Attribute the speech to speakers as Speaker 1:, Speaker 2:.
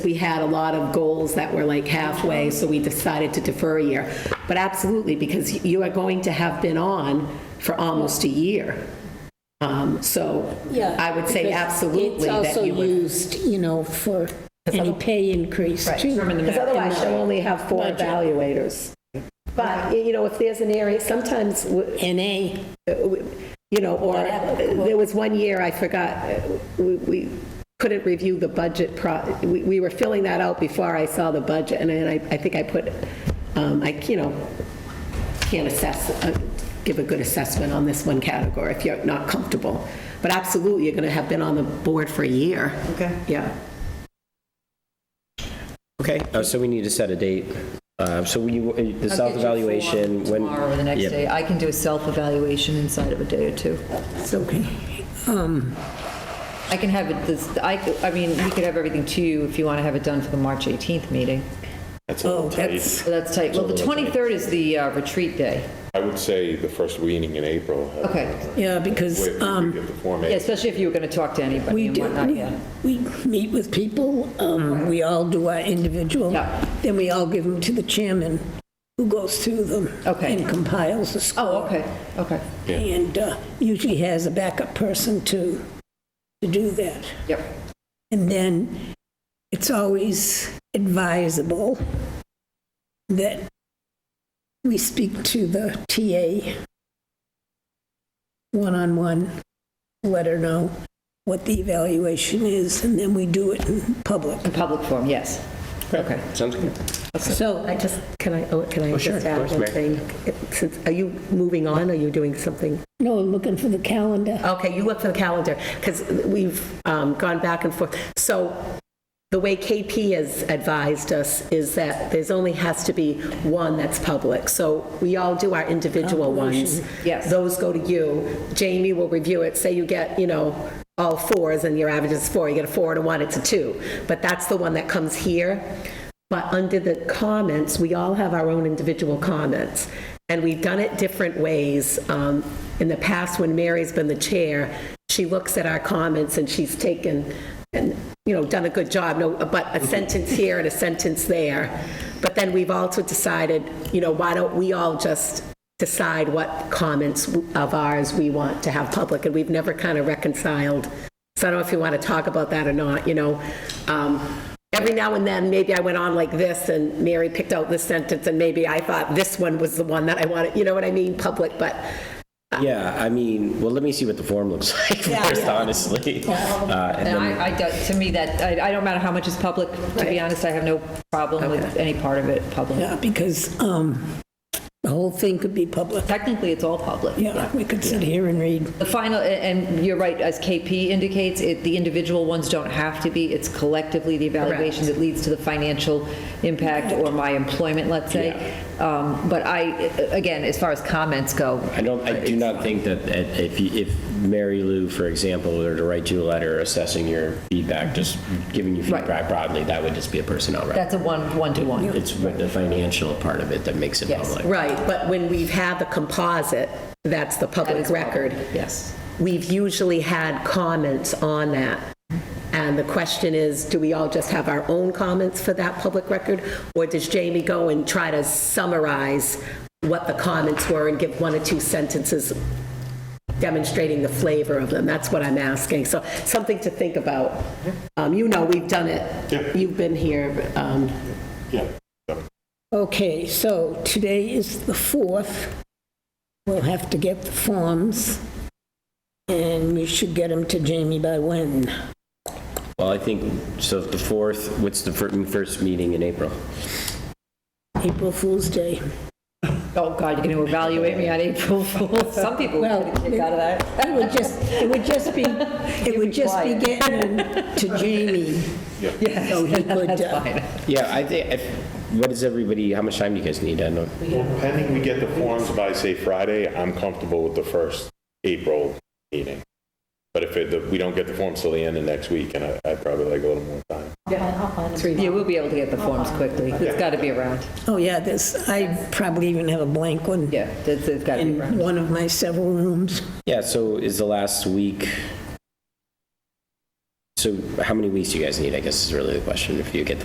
Speaker 1: we had a lot of goals that were like halfway, so we decided to defer a year. But absolutely, because you are going to have been on for almost a year. Um, So
Speaker 2: Yeah,
Speaker 1: I would say
Speaker 2: because
Speaker 1: absolutely
Speaker 2: It's
Speaker 1: that
Speaker 2: also
Speaker 1: you would.
Speaker 2: used, you know, for any pay increase, too.
Speaker 1: Because otherwise, she'll only have four evaluators. But, you know, if there's an area, sometimes, w-
Speaker 2: NA,
Speaker 1: you know, or, there was one year, I forgot, uh, we- we couldn't review the budget, pro- we we were filling that out before I saw the budget, and then I I think I put, um, I, you know, can't assess, uh, give a good assessment on this one category if you're not comfortable. But absolutely, you're going to have been on the board for a year.
Speaker 3: Okay.
Speaker 1: Yeah.
Speaker 4: Okay, uh, so we need to set a date. Uh, So we, the
Speaker 5: I'll get you
Speaker 4: self-evaluation,
Speaker 5: form
Speaker 4: when?
Speaker 5: Tomorrow or the next
Speaker 4: Yep.
Speaker 5: day. I can do a self-evaluation inside of a day or two.
Speaker 2: it's okay. Um,
Speaker 5: I can have it, this, I, I mean, we could have everything to you if you want to have it done for the March 18th meeting.
Speaker 6: That's a little tight.
Speaker 5: So that's tight. Well, the 23rd is the uh, retreat day.
Speaker 6: I would say the first meeting in April.
Speaker 5: Okay.
Speaker 2: Yeah, because
Speaker 6: Wait,
Speaker 2: um,
Speaker 6: we get the Form
Speaker 5: Yeah,
Speaker 6: A.
Speaker 5: especially if you were going to talk to anybody
Speaker 2: we
Speaker 5: and
Speaker 2: do,
Speaker 5: whatnot, yeah.
Speaker 2: we meet with people, um, we all do our individual.
Speaker 5: Yeah.
Speaker 2: Then we all give them to the chairman, who goes through them.
Speaker 5: Okay.
Speaker 2: And compiles the score.
Speaker 5: Oh, okay, okay.
Speaker 2: And uh, usually has a backup person to, to do that.
Speaker 5: Yep.
Speaker 2: And then it's always advisable that we speak to the TA one-on-one, let her know what the evaluation is, and then we do it in public.
Speaker 5: In public form, yes. Okay.
Speaker 4: Sounds good.
Speaker 2: So,
Speaker 7: I just, can I, oh, can I
Speaker 4: sure,
Speaker 7: just
Speaker 4: of
Speaker 7: add
Speaker 4: course,
Speaker 7: one
Speaker 4: Mary.
Speaker 7: thing? Since- Are you moving on, are you doing something?
Speaker 2: no, I'm looking for the calendar.
Speaker 7: Okay, you look for the calendar, because we've um, gone back and forth. So the way KP has advised us is that there's only has to be one that's public. So we all do our individual ones.
Speaker 5: Yes.
Speaker 7: Those go to you. Jamie will review it, say you get, you know, all fours and your average is four, you get a four and a one, it's a two. But that's the one that comes here. But under the comments, we all have our own individual comments. And we've done it different ways. Um, In the past, when Mary's been the chair, she looks at our comments and she's taken, and, you know, done a good job, no, but a sentence here and a sentence there. But then we've also decided, you know, why don't we all just decide what comments of ours we want to have public? And we've never kind of reconciled. So I don't know if you want to talk about that or not, you know. Um, Every now and then, maybe I went on like this, and Mary picked out this sentence, and maybe I thought this one was the one that I wanted, you know what I mean, public, but
Speaker 4: Yeah, I mean, well, let me see what the form looks like first, honestly. Uh, and
Speaker 5: And
Speaker 4: then-
Speaker 5: I, I, don't- to me, that, I, I don't matter how much is public, to be honest, I have no problem with any part of it public.
Speaker 2: Yeah, because um, the whole thing could be public.
Speaker 5: Technically, it's all public.
Speaker 2: Yeah, we could sit here and read.
Speaker 5: The final, a- and you're right, as KP indicates, it, the individual ones don't have to be, it's collectively the evaluation that leads to the financial impact or my employment, let's say. Um, But I, again, as far as comments go,
Speaker 4: I don't, I do not think that that if, you- if Mary Lou, for example, were to write you a letter assessing your feedback, just giving you
Speaker 5: Right.
Speaker 4: feedback broadly, that would just be a personnel record.
Speaker 5: that's a one, one-to-one.
Speaker 4: It's with the financial part of it that makes it
Speaker 5: Yes.
Speaker 4: public.
Speaker 7: Right, but when we've had the composite, that's the public record.
Speaker 5: Yes.
Speaker 7: We've usually had comments on that. And the question is, do we all just have our own comments for that public record? Or does Jamie go and try to summarize what the comments were and give one or two sentences demonstrating the flavor of them? That's what I'm asking. So something to think about. Um, You know, we've done
Speaker 6: Yeah.
Speaker 7: it. You've been here. um,
Speaker 6: Yeah.
Speaker 2: Okay, so today is the 4th. We'll have to get the forms, and we should get them to Jamie by when?
Speaker 4: Well, I think, so the fourth, what's the fir- first meeting in April?
Speaker 2: April Fool's Day.
Speaker 5: Oh, God, you're going to evaluate me on April Fool's. Some people
Speaker 2: Well,
Speaker 5: would kick out of that.
Speaker 2: It would just, it would just be, it would just be getting them to Jamie.
Speaker 5: Yes,
Speaker 2: So he would,
Speaker 5: that's
Speaker 2: uh,
Speaker 5: fine.
Speaker 4: Yeah, I think, if- what is everybody, how much time do you guys need? I know,
Speaker 6: Pending we get the forms by, say, Friday, I'm comfortable with the first April meeting. But if it, we don't get the forms till the end of next week, and I- I'd probably like a little more time.
Speaker 5: Yeah, we'll be able to get the forms quickly. It's got to be around.
Speaker 2: Oh, yeah, this, I probably even have a blank one
Speaker 5: Yeah, it's got to be
Speaker 2: in
Speaker 5: around.
Speaker 2: one of my several rooms.
Speaker 4: yeah, so is the last week, So how many weeks do you guys need, I guess is really the question, if you get the